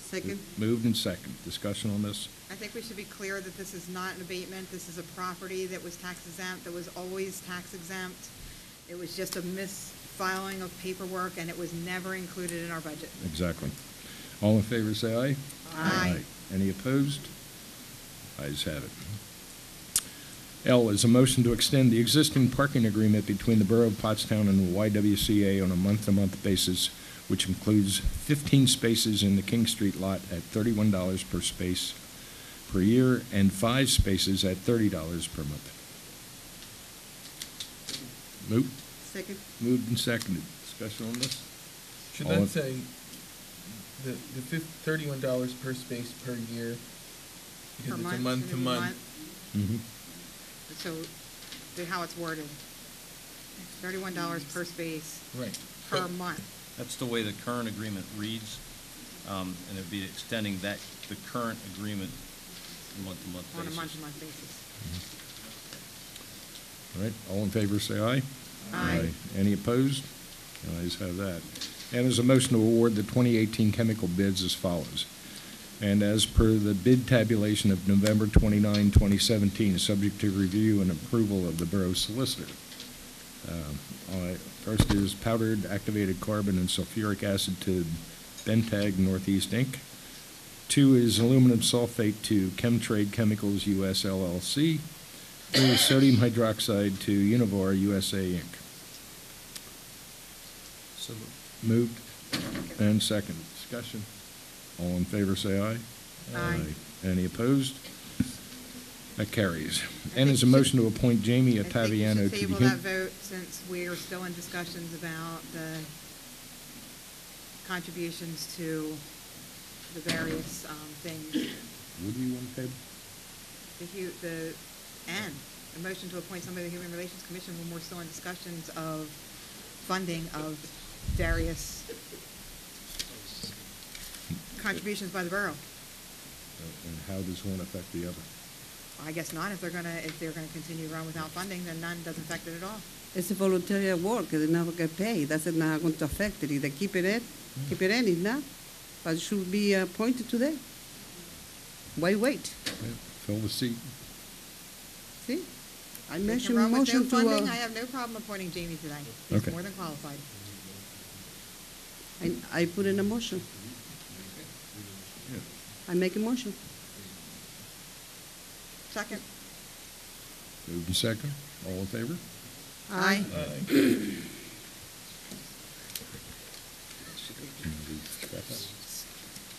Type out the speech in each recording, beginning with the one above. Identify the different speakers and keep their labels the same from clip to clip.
Speaker 1: Second.
Speaker 2: Moved and second. Discussion on this?
Speaker 1: I think we should be clear that this is not an abatement. This is a property that was tax exempt, that was always tax exempt. It was just a misfiling of paperwork, and it was never included in our budget.
Speaker 2: Exactly. All in favor, say aye.
Speaker 1: Aye.
Speaker 2: Any opposed? Ayes have it. L is a motion to extend the existing parking agreement between the Borough of Pottstown and the YWCA on a month-to-month basis, which includes 15 spaces in the King Street lot at $31 per space per year and five spaces at $30 per month. Moved,
Speaker 1: Second.
Speaker 2: moved and seconded. Discussion on this?
Speaker 3: Should
Speaker 2: All in-
Speaker 3: that say the, the fif- thirty-one dollars per space per year?
Speaker 1: Per
Speaker 3: Because it's a
Speaker 1: month,
Speaker 3: month to
Speaker 1: minimum
Speaker 3: month.
Speaker 2: Mm-hmm.
Speaker 1: month. So, the- how it's worded. Thirty-one dollars per space.
Speaker 3: Right.
Speaker 1: Per
Speaker 3: But-
Speaker 1: month.
Speaker 4: That's the way the current agreement reads, um, and it'd be extending that, the current agreement month-to-month
Speaker 1: On a
Speaker 4: basis.
Speaker 1: month-to-month basis.
Speaker 2: All right, all in favor, say aye.
Speaker 1: Aye.
Speaker 2: Any opposed? The Ayes have that. And there's a motion to award the 2018 chemical bids as follows. And as per the bid tabulation of November 29, 2017, subject to review and approval of the borough solicitor. Um, all right, First is powdered activated carbon and sulfuric acid to Bentag Northeast Inc. Two is aluminum sulfate to Chemtrade Chemicals US LLC. Three is sodium hydroxide to Univar USA Inc.
Speaker 4: So moved.
Speaker 2: Moved and second. Discussion. All in favor, say aye.
Speaker 1: Aye.
Speaker 2: Any opposed? That carries.
Speaker 1: I
Speaker 2: And
Speaker 1: think
Speaker 2: is a
Speaker 1: we should-
Speaker 2: motion to appoint Jamie
Speaker 1: I think we
Speaker 2: Ottaviano
Speaker 1: should
Speaker 2: to the.
Speaker 1: Table that
Speaker 2: Hu-
Speaker 1: vote since we are still in discussions about the contributions to the various um, things.
Speaker 2: Would you want to table?
Speaker 1: The hu, the, and a motion to appoint somebody to the Human Relations Commission when we're still in discussions of funding of various contributions by the borough.
Speaker 2: Oh, And how does one affect the other?
Speaker 1: I guess not, if they're gonna, if they're gonna continue to run without funding, then none doesn't affect it at all.
Speaker 5: It's a voluntary work, they never get paid, that's not going to affect it, they keep it in, keep it in, if not, but should be uh, appointed today. Why wait?
Speaker 2: Yeah, Fill the seat.
Speaker 5: See?
Speaker 1: They
Speaker 5: I
Speaker 1: can
Speaker 5: mentioned
Speaker 1: run with no
Speaker 5: motion to,
Speaker 1: funding.
Speaker 5: uh,
Speaker 1: I have no problem appointing Jamie tonight. He's
Speaker 2: Okay.
Speaker 1: more than qualified.
Speaker 5: I, I put in a motion,
Speaker 2: Yeah.
Speaker 5: I make a motion.
Speaker 1: Second.
Speaker 2: Moved and second. All in favor?
Speaker 1: Aye.
Speaker 3: Aye.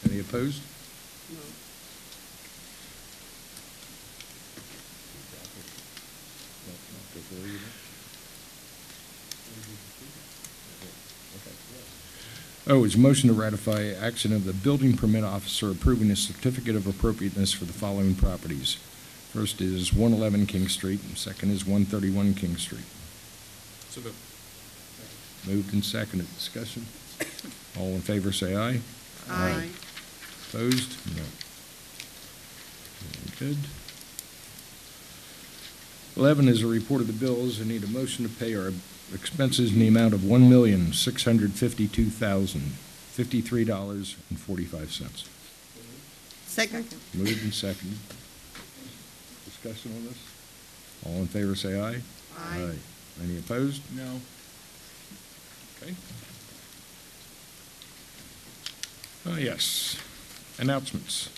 Speaker 2: Any opposed? Oh, it's motion to ratify action of the building permit officer approving a certificate of appropriateness for the following properties. First is 111 King Street, and second is 131 King Street. Moved and seconded. Discussion? All in favor, say aye.
Speaker 1: Aye.
Speaker 2: Opposed? No. Very good. Eleven is a report of the bills. I need a motion to pay our expenses in the amount of one million, six hundred fifty-two thousand, fifty-three dollars and forty-five cents.
Speaker 5: Second?
Speaker 2: Moved and seconded. Discussion on this? All in favor, say aye.
Speaker 1: Aye.
Speaker 2: Any opposed?
Speaker 3: No.
Speaker 2: Okay. Uh, yes, announcements.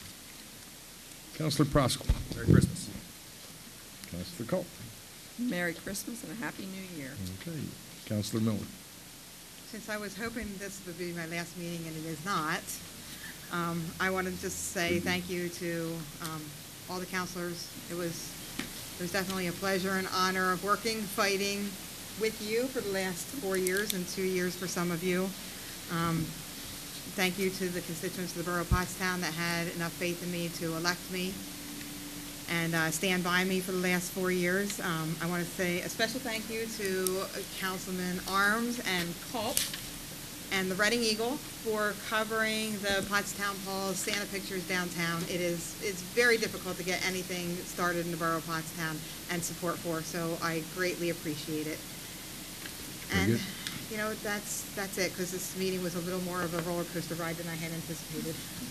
Speaker 2: Counselor Proskal.
Speaker 6: Merry Christmas.
Speaker 2: Counselor Culp.
Speaker 7: Merry Christmas and a Happy New Year.
Speaker 2: Okay. Counselor Miller.
Speaker 1: Since I was hoping this would be my last meeting and it is not, um, I want to just say thank you to, um, all the counselors. It was, it was definitely a pleasure and honor of working, fighting with you for the last four years and two years for some of you. Um, thank you to the constituents of the borough of Pottstown that had enough faith in me to elect me and uh, stand by me for the last four years. Um, I want to say a special thank you to Councilman Arms and Culp and the Reading Eagle for covering the Pottstown Paul's Santa Pictures downtown. It is, it's very difficult to get anything started in the borough of Pottstown and support for, so I greatly appreciate it.
Speaker 2: Very
Speaker 1: And,
Speaker 2: good.
Speaker 1: you know, that's, that's it, because this meeting was a little more of a roller coaster ride than I had anticipated.